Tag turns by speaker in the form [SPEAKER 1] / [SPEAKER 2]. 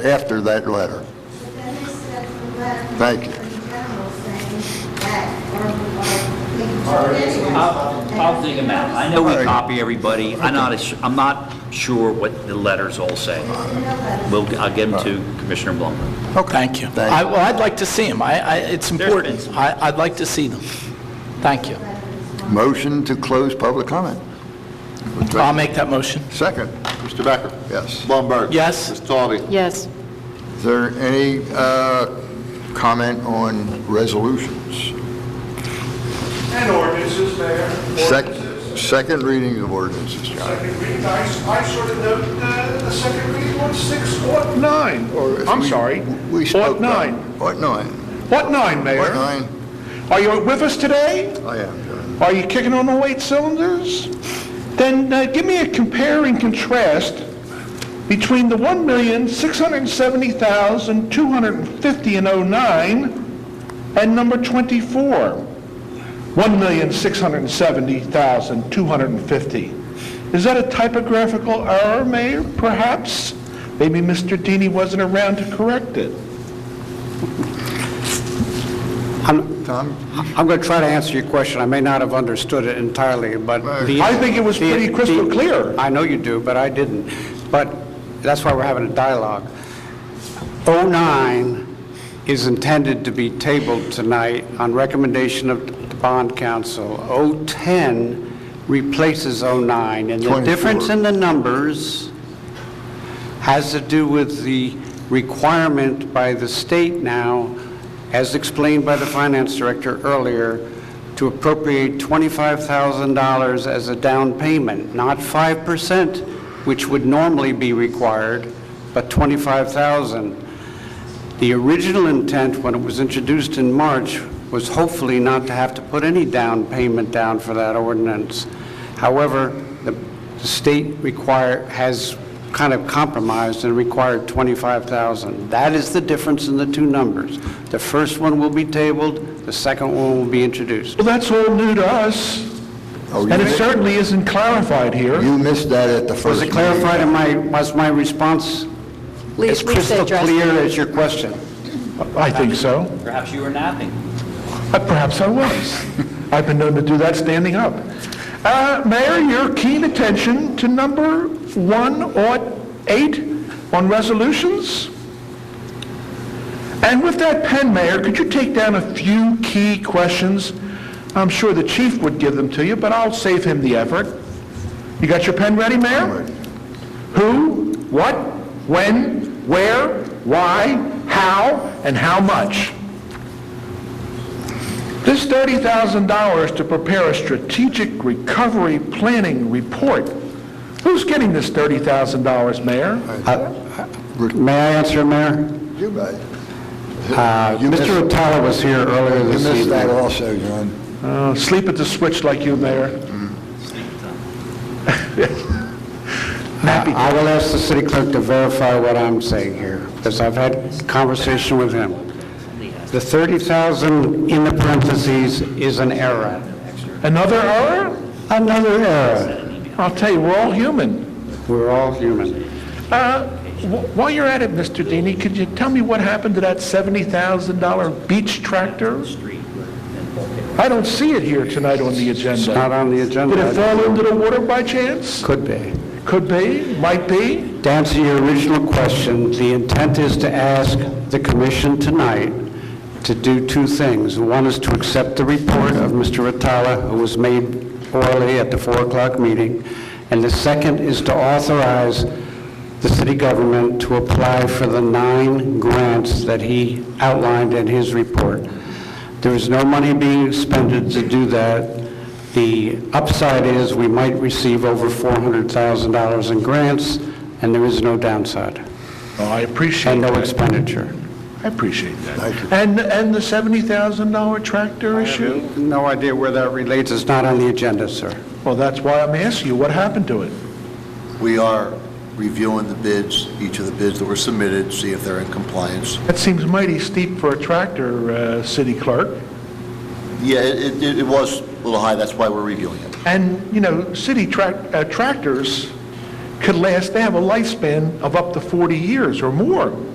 [SPEAKER 1] after that letter. Thank you.
[SPEAKER 2] I'll,
[SPEAKER 3] I'll
[SPEAKER 2] I'll dig them out. I know we
[SPEAKER 1] All right.
[SPEAKER 2] copy everybody. I'm not, as- I'm not sure what the letters all say. We'll, I'll get them to Commissioner Blumberg.
[SPEAKER 4] Thank you.
[SPEAKER 1] Thank
[SPEAKER 4] I- Well, I'd like to see them. I, I- it's
[SPEAKER 2] been
[SPEAKER 4] important.
[SPEAKER 2] some.
[SPEAKER 4] I, I'd like to see them. Thank you.
[SPEAKER 1] Motion to close public comment.
[SPEAKER 4] I'll make that motion.
[SPEAKER 1] Second.
[SPEAKER 5] Mr. Becker?
[SPEAKER 1] Yes.
[SPEAKER 5] Blumberg?
[SPEAKER 4] Yes.
[SPEAKER 5] Ms. Taube?
[SPEAKER 6] Yes.
[SPEAKER 1] Is there any uh, comment on resolutions?
[SPEAKER 7] And ordinances, Mayor.
[SPEAKER 1] Sec-
[SPEAKER 7] Ordinances.
[SPEAKER 1] Second reading of ordinances, John.
[SPEAKER 7] Second reading, I, I sort of note uh, the second reading on six, what nine?
[SPEAKER 1] Or if
[SPEAKER 7] I'm
[SPEAKER 1] we-
[SPEAKER 7] sorry.
[SPEAKER 1] We spoke.
[SPEAKER 7] What
[SPEAKER 1] about-
[SPEAKER 7] nine?
[SPEAKER 1] What nine?
[SPEAKER 7] What nine, Mayor?
[SPEAKER 1] What nine?
[SPEAKER 7] Are you with us today?
[SPEAKER 1] I am, John.
[SPEAKER 7] Are you kicking on all eight cylinders? Then uh, give me a compare and contrast between the 1,670,250 in '09 and number 24, 1,670,250. Is that a typographical error, Mayor, perhaps? Maybe Mr. Deeney wasn't around to correct it.
[SPEAKER 8] I'm going to try to answer your question. I may not have understood it entirely, but the...
[SPEAKER 7] I think it was
[SPEAKER 8] the-
[SPEAKER 7] pretty crystal
[SPEAKER 8] the-
[SPEAKER 7] clear.
[SPEAKER 8] I know you do, but I didn't. But that's why we're having a dialogue. 09 is intended to be tabled tonight on recommendation of the bond council. 010 replaces 09, and the
[SPEAKER 1] 24.
[SPEAKER 8] difference in the numbers has to do with the requirement by the state now, as explained by the finance director earlier, to appropriate $25,000 as a down payment, not 5%, which would normally be required, but 25,000. The original intent, when it was introduced in March, was hopefully not to have to put any down payment down for that ordinance. However, the the state require, has kind of compromised and required 25,000. That is the difference in the two numbers. The first one will be tabled, the second one will be introduced.
[SPEAKER 7] Well, that's all new to us,
[SPEAKER 1] Oh, you
[SPEAKER 7] and it
[SPEAKER 1] missed-
[SPEAKER 7] certainly isn't clarified here.
[SPEAKER 1] You missed that at the first.
[SPEAKER 8] Was it clarified in my, was my response
[SPEAKER 6] Lisa-
[SPEAKER 8] as crystal
[SPEAKER 6] Lisa addressed
[SPEAKER 8] clear
[SPEAKER 6] it.
[SPEAKER 8] as your question?
[SPEAKER 7] I think so.
[SPEAKER 2] Perhaps you were napping.
[SPEAKER 7] Uh, Perhaps I was. I've been known to do that standing up. Uh, Mayor, your keen attention to number one or eight on resolutions? And with that pen, Mayor, could you take down a few key questions? I'm sure the chief would give them to you, but I'll save him the effort. You got your pen ready, Mayor? Who, what, when, where, why, how, and how much? This $30,000 to prepare a strategic recovery planning report, who's getting this $30,000, Mayor?
[SPEAKER 8] May I answer, Mayor?
[SPEAKER 1] reading. Uh, You may.
[SPEAKER 7] Uh,
[SPEAKER 1] You missed-
[SPEAKER 8] Mr. O'Tala was here earlier
[SPEAKER 1] You
[SPEAKER 8] this evening.
[SPEAKER 1] missed that also, John.
[SPEAKER 7] Uh, Sleep at the switch like you, Mayor.
[SPEAKER 8] Uh, I I will ask the city clerk to verify what I'm saying here, because I've had conversation with him. The 30,000 in the parentheses is an error.
[SPEAKER 7] Another error?
[SPEAKER 8] Another error.
[SPEAKER 7] I'll tell you, we're all human.
[SPEAKER 8] We're all human.
[SPEAKER 7] Uh, wh- While you're at it, Mr. Deeney, could you tell me what happened to that $70,000 beach tractor? I don't see it here tonight on the
[SPEAKER 8] It's not
[SPEAKER 7] agenda.
[SPEAKER 8] on the agenda.
[SPEAKER 7] Did it fall into the water by chance?
[SPEAKER 8] Could be.
[SPEAKER 7] Could be, might be.
[SPEAKER 8] To answer your original question, the intent is to ask the commission tonight to do two things. One is to accept the report of Mr. Rattala, who was made orally at the 4 o'clock meeting, and the second is to authorize the city government to apply for the nine grants that he outlined in his report. There is no money being expended to do that. The upside is we might receive over $400,000 in grants, and there is no downside,
[SPEAKER 7] Oh, I appreciate
[SPEAKER 8] and
[SPEAKER 7] that.
[SPEAKER 8] no expenditure.
[SPEAKER 7] I appreciate that.
[SPEAKER 1] Thank you.
[SPEAKER 7] And, and the $70,000 tractor issue?
[SPEAKER 8] No idea where that relates, it's not on the agenda, sir.
[SPEAKER 7] Well, that's why I'm asking you, what happened to it?
[SPEAKER 9] We are reviewing the bids, each of the bids that were submitted, see if they're in compliance.
[SPEAKER 7] That seems mighty steep for a tractor, uh, city clerk.
[SPEAKER 9] Yeah, it, it- it was a little high, that's why we're reviewing it.
[SPEAKER 7] And, you know, city trac- uh, tractors could last, they have a lifespan of up to 40 years or more.